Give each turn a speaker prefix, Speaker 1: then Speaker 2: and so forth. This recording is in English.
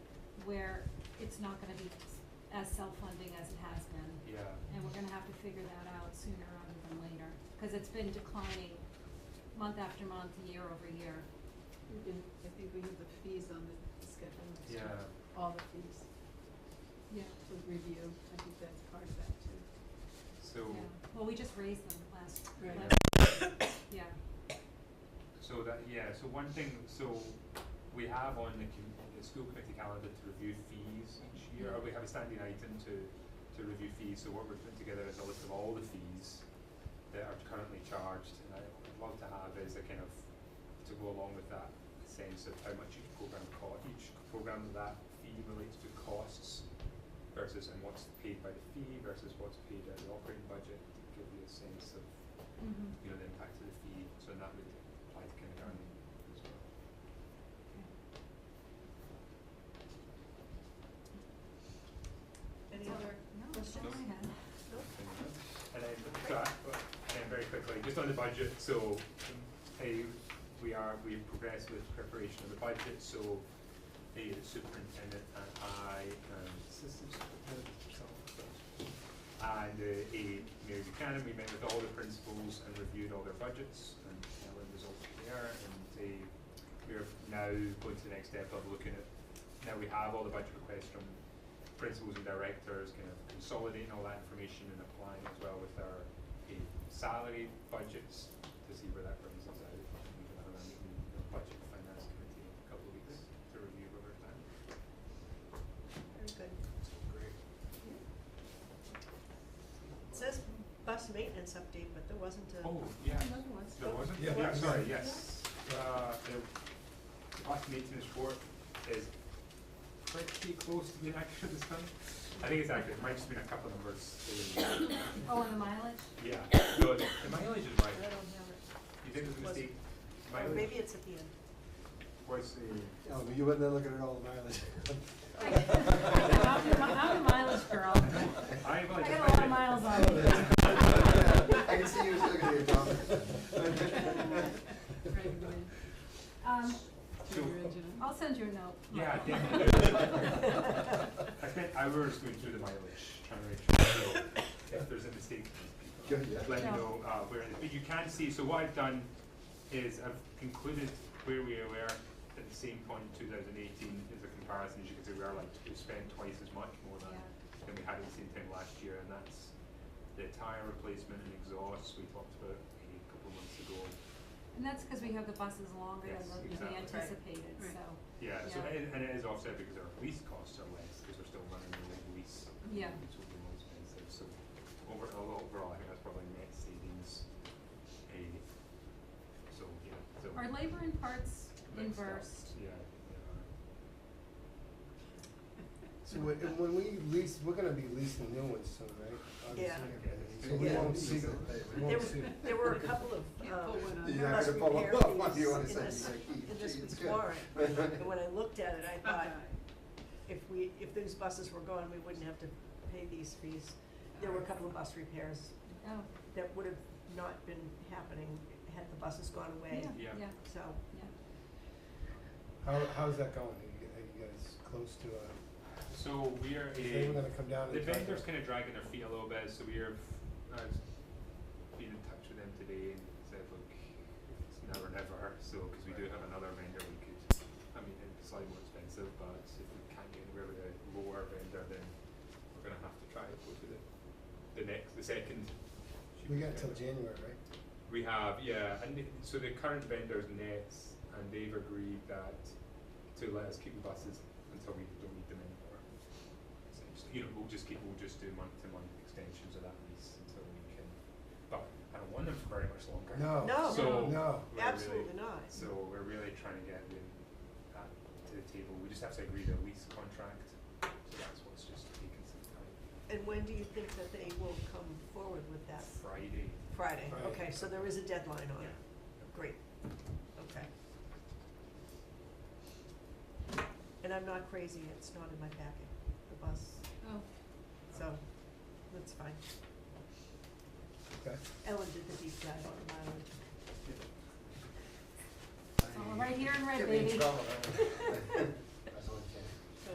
Speaker 1: where it's not gonna be as self-funding as it has been.
Speaker 2: Yeah.
Speaker 1: And we're gonna have to figure that out sooner rather than later, cause it's been declining month after month, year over year.
Speaker 3: We can- I think we have the fees on the schedule next time.
Speaker 2: Yeah.
Speaker 3: All the fees,
Speaker 1: Yeah.
Speaker 3: the review, I think that's part of that too.
Speaker 2: So,
Speaker 1: Yeah, well, we just raised them last,
Speaker 3: Right.
Speaker 1: last, yeah,
Speaker 2: so that, yeah, so one thing, so we have on the com- the school committee calendar to review fees each year, or we have a standing item to, to review fees, so what we're putting together is a list of all the fees that are currently charged, and I- what I'd love to have is a kind of, to go along with that sense of how much each program co- each program that fee relates to costs versus, and what's paid by the fee versus what's paid out of the operating budget, to give you a sense of
Speaker 1: mhm,
Speaker 2: you know, the impact of the fee, so that would apply to kindergarten as well.
Speaker 1: okay.
Speaker 3: Any
Speaker 1: So-
Speaker 3: other
Speaker 1: No, that's
Speaker 3: questions?
Speaker 1: all I had.
Speaker 2: And then, so I, and then very quickly, just on the budget, so, hey, we are, we progress with preparation of the budget, so the superintendent and I, and assistant superintendent, so, and uh, a Mary Buchanan, we met with all the principals and reviewed all their budgets, and Ellen was also there, and they, we're now going to the next step of looking at, now we have all the budget requests from principals and directors, kind of consolidating all that information and applying as well with our eh, salary budgets to see where that brings us out. We can have a meeting, the budget finance committee in a couple of weeks to review what we're planning.
Speaker 4: Very good.
Speaker 2: Great.
Speaker 4: It says bus maintenance update, but there wasn't a.
Speaker 2: Oh, yeah.
Speaker 3: Another one.
Speaker 2: There wasn't?
Speaker 5: Yeah.
Speaker 2: Yeah, sorry, yes. Uh, the last maintenance report is pretty close to being accurate this time. I think it's accurate, it might just been a couple numbers. eh,
Speaker 1: Oh, and the mileage?
Speaker 2: Yeah, so the the mileage is
Speaker 4: I don't
Speaker 2: right.
Speaker 4: have it.
Speaker 2: You think it was a
Speaker 4: Was-
Speaker 2: mistake?
Speaker 4: Or
Speaker 2: Mileage?
Speaker 4: maybe it's at the end.
Speaker 2: What's the?
Speaker 5: Yeah, Oh, but you wouldn't have looked at all the mileage.
Speaker 1: I'm the, mi- I'm the mileage girl.
Speaker 2: I
Speaker 1: I got a lot of miles on me.
Speaker 5: I can see you was looking at your job.
Speaker 3: Right, go ahead.
Speaker 1: Um,
Speaker 2: So,
Speaker 3: Your engine.
Speaker 1: I'll send you a note.
Speaker 2: yeah,
Speaker 1: Michael.
Speaker 2: definitely. I spent hours going through the mileage, trying to make sure, so if there's a mistake,
Speaker 5: Good, yeah.
Speaker 2: let me
Speaker 1: No.
Speaker 2: know, uh, where it is. But you can see, so what I've done is I've concluded where we were at the same point in two thousand eighteen is a comparison, as you can see, we are like, we spent twice as much more than,
Speaker 1: Yeah.
Speaker 2: than we had at the same time last year, and that's the tire replacement and exhaust we talked about a couple of months ago.
Speaker 1: And that's because we have the buses longer
Speaker 2: Yes,
Speaker 1: than the- we
Speaker 2: exactly.
Speaker 4: Right.
Speaker 1: anticipated,
Speaker 3: Right.
Speaker 1: so,
Speaker 2: Yeah, so
Speaker 1: Yeah.
Speaker 2: and, and it is offset because our lease costs are less, because we're still running the old lease,
Speaker 1: yeah.
Speaker 2: which will be more expensive, so over, overall, I think that's probably net savings, a, so, yeah, so.
Speaker 1: Are labor and parts
Speaker 2: next up,
Speaker 1: inversed?
Speaker 2: Yeah, they
Speaker 5: So when, and when we lease, we're gonna be leasing new ones soon, right?
Speaker 4: Yeah.
Speaker 5: Obviously, So we
Speaker 4: Yeah.
Speaker 5: won't see them, we
Speaker 4: There
Speaker 5: won't
Speaker 4: were,
Speaker 5: see them.
Speaker 4: there were a couple of,
Speaker 3: Can't
Speaker 4: um,
Speaker 3: pull one on.
Speaker 5: You're not
Speaker 4: bus
Speaker 5: gonna pull
Speaker 4: repair
Speaker 5: up what
Speaker 4: fees
Speaker 5: you wanna
Speaker 4: in
Speaker 5: say,
Speaker 4: this,
Speaker 5: you're like,
Speaker 4: in this
Speaker 5: "Geez,
Speaker 4: week's
Speaker 5: good."
Speaker 4: warrant. And when I looked at it, I thought, if we, if those buses were gone, we wouldn't have to pay these fees. There were a couple of bus repairs
Speaker 1: Oh,
Speaker 4: that would have not been happening had the buses gone away,
Speaker 1: yeah, yeah,
Speaker 2: Yeah.
Speaker 1: yeah.
Speaker 4: so.
Speaker 5: How, how's that going? Are you, are you guys close to, uh,
Speaker 2: are. So we are a.
Speaker 5: is anyone gonna come down and?
Speaker 2: The
Speaker 5: talk
Speaker 2: vendors
Speaker 5: to-
Speaker 2: kind of dragging their feet a little bit, so we have uh, been in touch with them today and said, look, it's now or never. So, because we do have another vendor, we could. I mean, it's slightly more expensive, but if we can't get anywhere with a lower vendor, then we're gonna have to try and go to the the next, the second. cheapest
Speaker 5: We got till
Speaker 2: vendor.
Speaker 5: January, right?
Speaker 2: We have, yeah, and the- so the current vendor's Nets, and they've agreed that to let us keep the buses until we don't need them anymore. Essentially, you know, we'll just keep, we'll just do month to month extensions of that lease until we can, but I don't want them for very much longer.
Speaker 5: No.
Speaker 4: Oh, No.
Speaker 2: So. we're
Speaker 5: No.
Speaker 2: really-
Speaker 4: Absolutely not.
Speaker 2: So we're really trying to get the, that to the table, we just have to agree to a lease contract, so that's what's just taking some time.
Speaker 4: And when do you think that they will come forward with that?
Speaker 2: Friday.
Speaker 4: Friday,
Speaker 5: Friday.
Speaker 4: okay, so there is a deadline on
Speaker 2: Yeah.
Speaker 4: it. Great, okay. And I'm not crazy, it's not in my packet, the bus,
Speaker 1: Oh,
Speaker 4: so that's fine.
Speaker 5: Okay.
Speaker 4: Ellen did the deep dive
Speaker 1: it's
Speaker 4: on the mileage.
Speaker 1: all right here in red, baby.
Speaker 5: Get me in trouble, huh?